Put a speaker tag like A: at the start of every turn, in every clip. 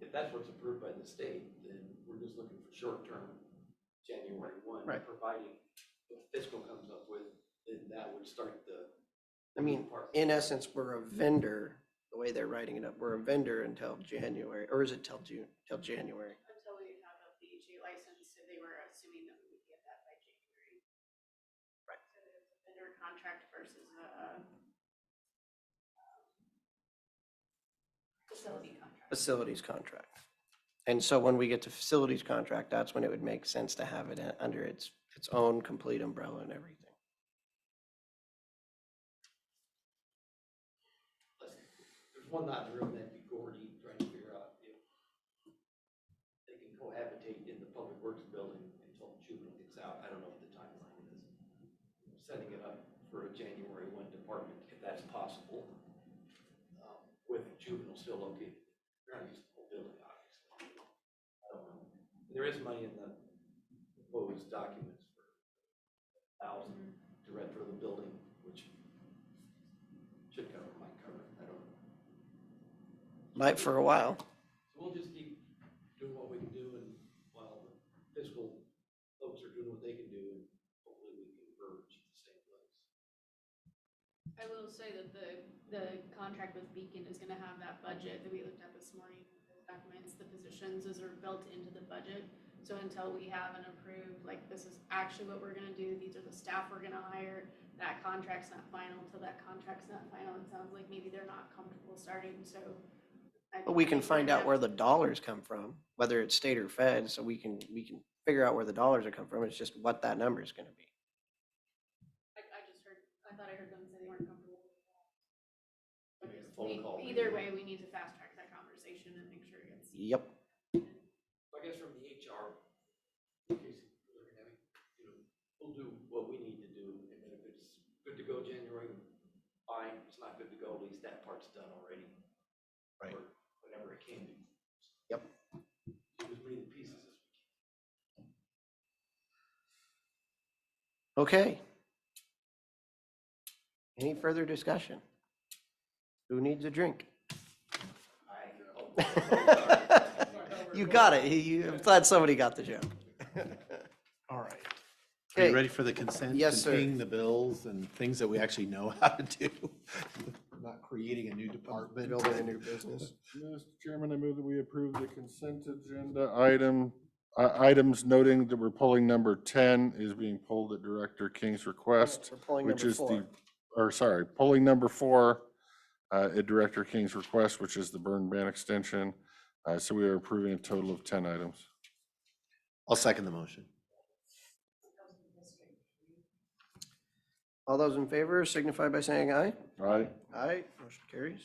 A: if that's what's approved by the state, then we're just looking for short-term, January one.
B: Right.
A: Providing what fiscal comes up with, then that would start the.
B: I mean,
A: part.
B: in essence, we're a vendor, the way they're writing it up, we're a vendor until January, or is it till June, till January?
C: Until we have a PHA license, so they were assuming that we would get that by January. Right. So there's a vendor contract versus a um, facility contract.
B: Facilities contract. And so when we get to facilities contract, that's when it would make sense to have it in- under its, its own complete umbrella and everything.
A: Let's- There's one not in the room, that'd be Gordy, trying to figure out if they can cohabitate in the public works building until juvenile gets out. I don't know what the timeline is. Setting it up for a January one department, if that's possible, um, with juvenile still located. They're not using the whole building, obviously. I don't know. There is money in the proposed documents for thousand to retro the building, which should cover, might cover, I don't know.
B: Might for a while.
A: So we'll just keep doing what we can do and while the fiscal folks are doing what they can do and hopefully we can converge at the same place.
C: I will say that the, the contract with Beacon is gonna have that budget that we looked at this morning. The Documents, the positions, those are built into the budget. So until we have an approved, like, this is actually what we're gonna do, these are the staff we're gonna hire, that contract's not final, till that contract's not final, it sounds like maybe they're not comfortable starting, so. I-
B: But we
C: I
B: can find
C: think we're
B: out where
C: gonna-
B: the dollars come from, whether it's state or fed, so we can, we can figure out where the dollars are coming from. It's just what that number is gonna be.
C: I, I just heard, I thought I heard them say they weren't comfortable. with that. But
A: Make a
C: just-
A: phone
C: e-
A: call.
C: Either way, we need to fast track that conversation and make sure it gets.
B: Yep.
A: So I guess from the HR, in case you're looking at me, you know, we'll do what we need to do and then if it's good to go January, fine, if it's not good to go, at least that part's done already.
B: Right.
A: Or Whatever it can be.
B: Yep.
A: Do as many pieces as we can.
B: Okay. Any further discussion? Who needs a drink? You got it. You, I'm glad somebody got the joke.
D: All right. Are you
B: Okay,
D: ready for the consent?
B: Yes, sir.
D: Containing the bills and things that we actually know how to do. Not creating a new department.
B: building a new business.
E: Mr. Chairman, I move that we approve the consent agenda item, uh, items noting that we're pulling number ten is being pulled at Director King's request,
B: We're pulling
E: which
B: number
E: is the,
B: four.
E: or sorry, pulling number four uh, at Director King's request, which is the burn ban extension. Uh, so we are approving a total of ten items.
D: I'll second the motion.
B: All those in favor signify by saying aye.
E: All right?
B: Aye, motion carries.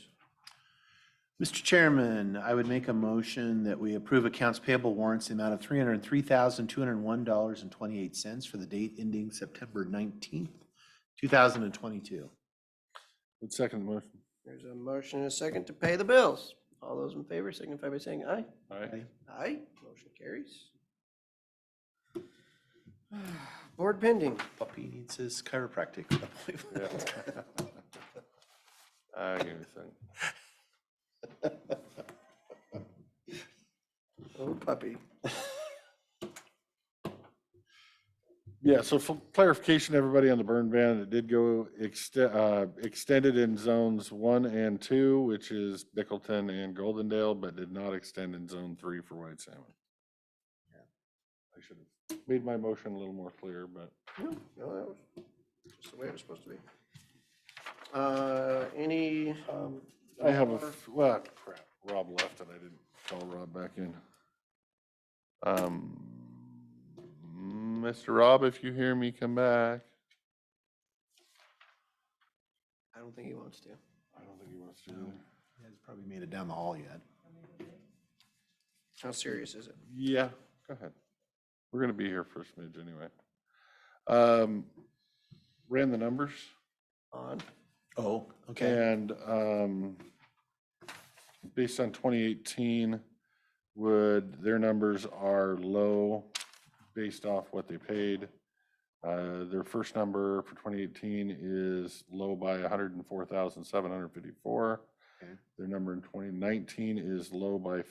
D: Mr. Chairman, I would make a motion that we approve accounts payable warrants in the amount of three hundred and three thousand, two hundred and one dollars and twenty-eight cents for the date ending September nineteenth, two thousand and twenty-two.
E: Would second the motion.
B: There's a motion and a second to pay the bills. All those in favor signify by saying aye.
E: All right.
B: Aye, motion carries. Board pending.
D: Puppy needs his chiropractic appointment.
E: I give you a second.
B: Oh, puppy.
E: Yeah, so for clarification, everybody on the burn ban, it did go exte- uh, extended in zones one and two, which is Bickleton and Goldendale, but did not extend in zone three for white salmon. I should have made my motion a little more clear, but
B: No, no, that was just the way it was supposed to be. Uh, any, um,
E: I have a, f- well, crap, Rob left and I didn't call Rob back in. Um, Mr. Rob, if you hear me, come back.
B: I don't think he wants to.
E: I don't think he wants to.
D: He hasn't probably made it down the hall yet.
B: How serious is it?
E: Yeah, go ahead. We're gonna be here for a smidge anyway. Um, ran the numbers
B: On?
D: Oh, okay.
E: and, um, based on twenty eighteen, would, their numbers are low based off what they paid. Uh, their first number for twenty eighteen is low by hundred and four thousand, seven hundred fifty-four.
D: Okay.
E: Their number in twenty nineteen is low by